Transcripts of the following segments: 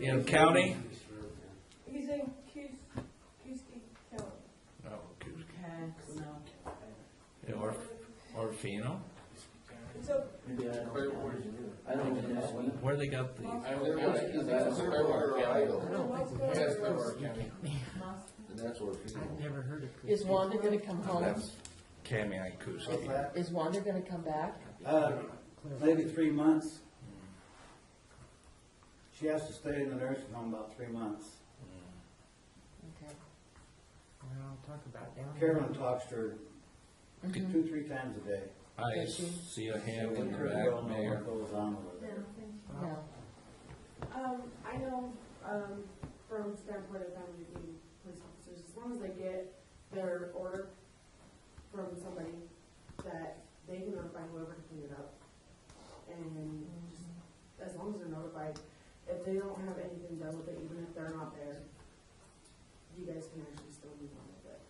in county? He's in Cus- Cusky County. No, Cus- Okay, no. yeah, Or, Orfino, It's up, Maybe I don't. I don't even know. where they got the, And that's where people. Never heard of Coos. Is Wanda gonna come home? Kami and Kuski. Is Wanda gonna come back? Uh, maybe three months. She has to stay in the nursing home about three months. Okay. Well, talk about down. Carolyn talks to her two, three times a day. I Does she- see a hand in the Pretty well back, know what Mayor. goes on with her. No. Um, I know, um, from the standpoint of family being police officers, as long as they get their order from somebody, that they can notify whoever to clean it up. And just, as long as they're notified, if they don't have anything done with it, even if they're not there, you guys can actually still move on with it.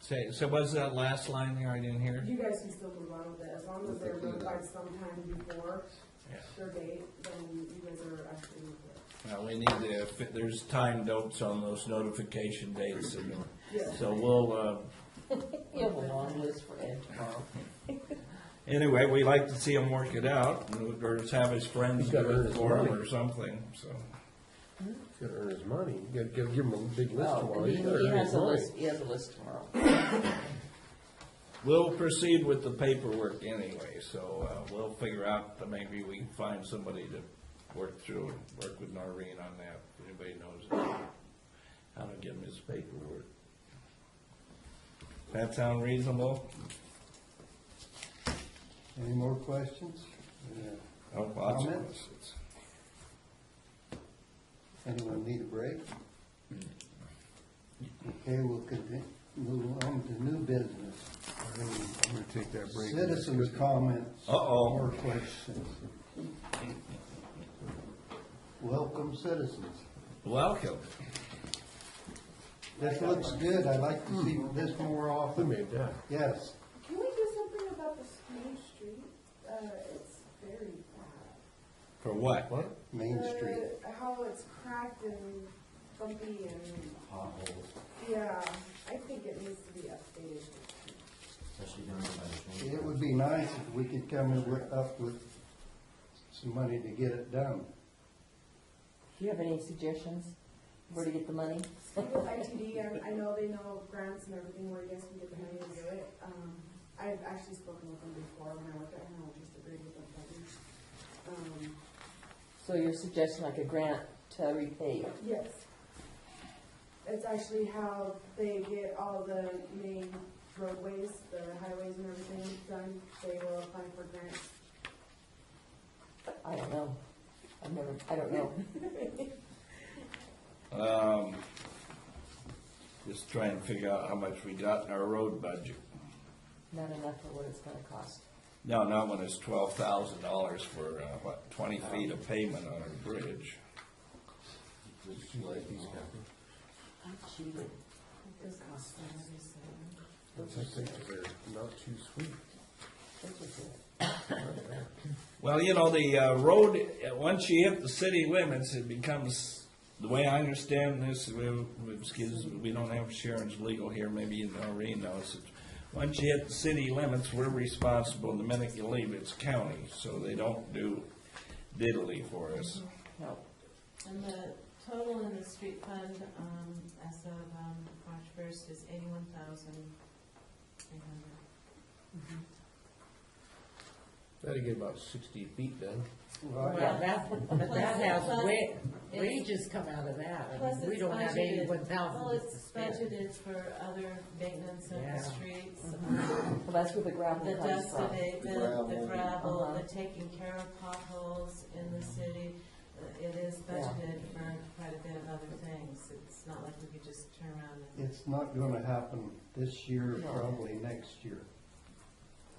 Say, so was that last line there, I didn't hear? You guys can still move on with it, as long as they're notified sometime before Yeah. their date, then you guys are actually moving it. Now, we need to, if there's time notes on those notification dates, and- Yeah. so we'll, uh, We have a long list for Ed tomorrow. anyway, we like to see him work it out, or just have his friends He's got do it his for him money. or something, so. He's gotta earn his money, you gotta give, give him a big list Well, tomorrow. he, He's gotta he earn has his a money. list, he has a list tomorrow. We'll proceed with the paperwork anyway, so uh, we'll figure out, that maybe we can find somebody to work through and work with Noreen on that, if anybody knows how to get him his paperwork. That sound reasonable? Any more questions? Oh, lots of Comments? questions. Anyone need a break? Okay, we'll continue, move on to new business. I'm gonna take that break. Citizens' comments. Uh-oh. More questions. Welcome citizens. Welcome. This looks good, I'd like to see this more Who often, made that? yes. Can we do something about the Main Street? Uh, it's very bad. For what? What? Main Street. Uh, How it's cracked and bumpy and, potholes, yeah, I think it needs to be updated. especially down there by the train. It would be nice if we could come in with- up with some money to get it done. Do you have any suggestions where to get the money? Speak with ITD, I, I know they know grants and everything where you guys can get the money to do it. Um, I've actually spoken with them before when I worked at Home, I just agreed with them. but, Um, So you're suggesting like a grant to repay? Yes. It's actually how they get all the main roadways, the highways and everything done. They will apply for grants. I don't know. I've never, I don't know. Um, Just trying to figure out how much we got in our road budget. Not enough for what it's gonna cost. No, not when it's twelve thousand dollars for, uh, what, twenty feet of pavement on a bridge. Does she like these copies? I cheated. I think they're not too sweet. Well, you know, the uh, road, uh, once you hit the city limits, it becomes, the way I understand this, we, we- excuse, we don't have Sharon's legal here, maybe you know, Reen knows. it. Once you hit the city limits, we're responsible, the minute you leave, it's county, so they don't do diddly for us. No. And the total in the street fund, um, as of, um, March first is eighty-one thousand three hundred. That'd get about sixty feet done. Yeah, that, but that has wa- wages come out of that, Plus it's budgeted- Well, it's spend. budgeted for other maintenance of Yeah. Mm-hmm. the streets, um, Well, that's where the gravel the comes dust from. abatement, Gravel. the gravel, Uh-huh. the taking care of potholes in the city. Uh, It is Yeah. budgeted for quite a bit of other things. It's not like we could just turn around and It's not gonna happen this year, No. probably next year.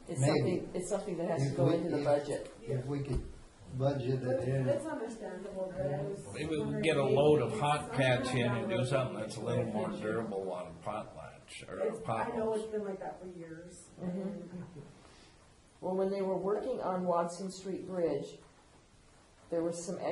It's Maybe. something, it's something that has to If go we- into the if- budget. If we could budget But it in, It's understandable, but I was. Maybe we can get a load of hot patch in and do something that's a little more durable on a pot latch, or a It's- I know it's potholes. been like that for years. Mm-hmm. and Well, when they were working on Watson Street Bridge, there was some